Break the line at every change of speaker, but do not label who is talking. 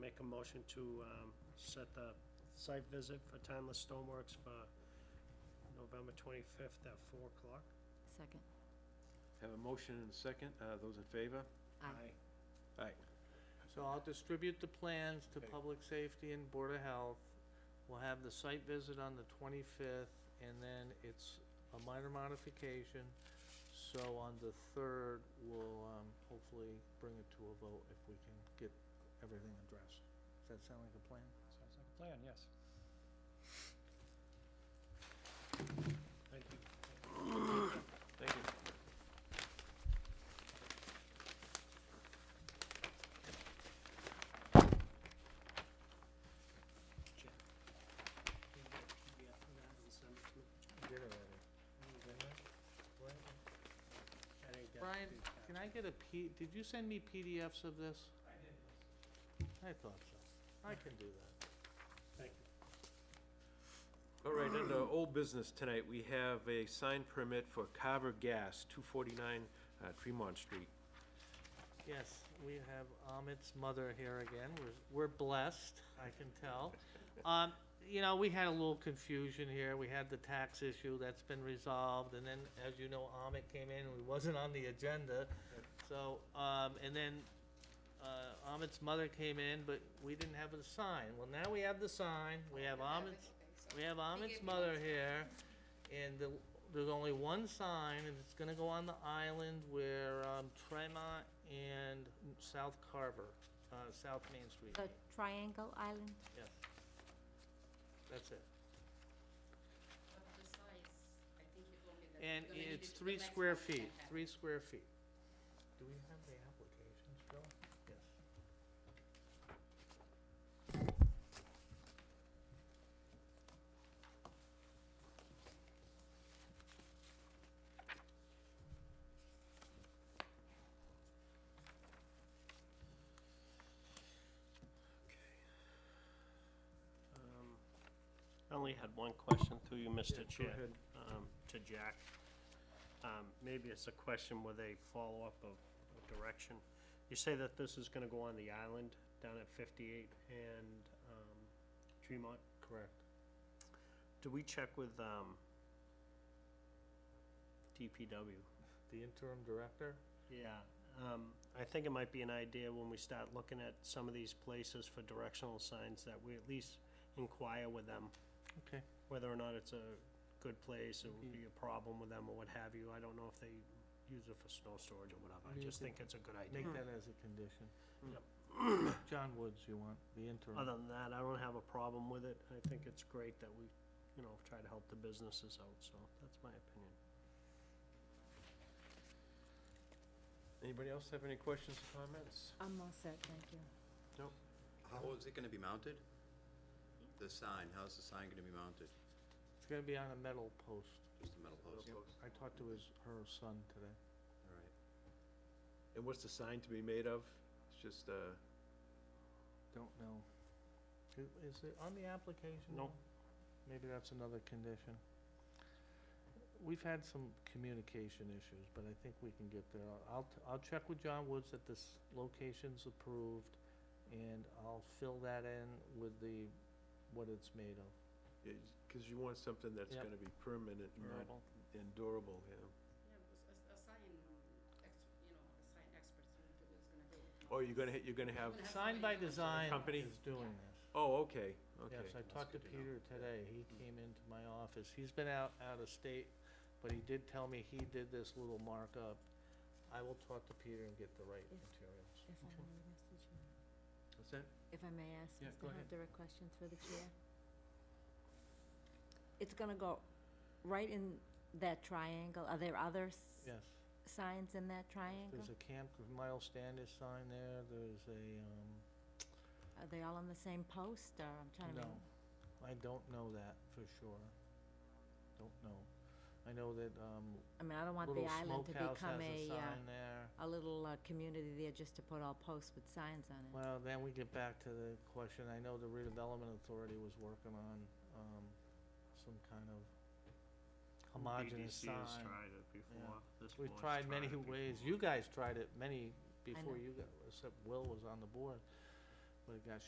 make a motion to um, set the site visit for Timeless Stoneworks for November 25th at 4 o'clock.
Second.
Have a motion and a second. Uh, Those in favor?
Aye.
Aye.
So I'll distribute the plans to
Okay.
Public Safety and Board of Health. We'll have the site visit on the twenty-fifth, and then it's a minor modification. So on the third, we'll, um, hopefully bring it to a vote if we can get everything addressed. Does that sound like a plan?
Sounds like a plan, yes.
Thank you.
Thank you.
Brian, Can I get a P, did you send me PDFs of this? I did. I thought so. I can do that.
Thank you.
All right, under old business tonight, we have a sign permit for Carver Gas, 249 uh, Tremont Street.
Yes, we have Amit's mother here again. We're, we're blessed, I can tell. Um, you know, we had a little confusion here. We had the tax issue that's been resolved, and then, as you know, Amit came in and he wasn't on the agenda. So, um, and then, uh, Amit's mother came in, but we didn't have a sign. Well, now we have the sign. We have Amit's, we have Amit's
gave me one
mother here, and the, there's only one sign, and it's gonna go on the island where, um, Tremont and South Carver, uh, South Main Street.
The Triangle Island?
Yes. That's it.
But the size, I think you told me that
And
you're gonna need it
it's
to the
three
maximum
square
you can
feet,
have.
three square feet. Do we have the applications, Bill? Yes.
Um, I only had one question through you,
Yeah,
Mr.
go
Chair,
ahead.
um, to Jack. Um, Maybe it's a question with a follow-up of of direction. You say that this is gonna go on the island down at 58 and um, Tremont?
Correct.
Do we check with um, DPW?
The interim director?
Yeah, um, I think it might be an idea when we start looking at some of these places for directional signs that we at least inquire with them.
Okay.
Whether or not it's a good place, it would
Mhm.
be a problem with them or what have you, I don't know if they use it for snow storage or whatever, I
Yeah,
just
they-
think it's a good idea.
Make that as a condition.
Yep.
John Woods, you want, the interim.
Hmm. Other than that, I don't have a problem with it, I think it's great that we, you know, try to help the businesses out, so that's my opinion.
Anybody else have any questions, comments?
I'm all set, thank you.
How is it gonna be mounted? The sign, how's the sign gonna be mounted?
It's gonna be on a metal post.
Just a metal post?
I talked to his, her son today.
All right.
And what's the sign to be made of? It's just, uh,
Don't know. I- Is it on the application?
No.
now? Maybe that's another condition. We've had some communication issues, but I think we can get there. I'll- I'll, t- I'll check with John Woods that this location's approved, and I'll fill that in with the, what it's made of.
it's- cause you want something that's
Yep.
gonna be permanent, not
Verbal.
endurable, yeah.
Yeah, because a, a sign, um, ex, you know, a sign expert is gonna do, is gonna do it.
Oh, you're gonna, ha- you're gonna have,
We're gonna have
Sign
somebody
by
come and say,
Design
Company?
is doing this.
oh, okay, okay.
Yes, I
that's
talked to
good to know.
Peter today, he came into my office, he's been out, out of state, but he did tell me he did this little markup. I will talk to Peter and get the right
If-
materials.
If I may, Mr. Chair.
What's that?
If I may ask,
Yeah,
Mr.
go ahead.
Hunt, direct questions for the chair. It's gonna go right in that triangle. Are there other s-
Yes,
signs in that triangle?
there's a Camp Miles Standish sign there, there's a, um,
Are they all on the same post, or I'm trying to
no,
remember?
I don't know that for sure. Don't know. I know that, um,
I mean, I don't want the
Little
island to
Smokehouse has
become
a
a, uh,
sign there.
a little, uh, community there just to put all posts with signs on it.
Well, then we get back to the question, I know the redevelopment authority was working on, um, some kind of homogeneous
BDC has
sign.
tried it before, this
We've
board's
tried many
it
ways,
before.
you guys tried it many before
know.
you got, except Will was on the board, but it got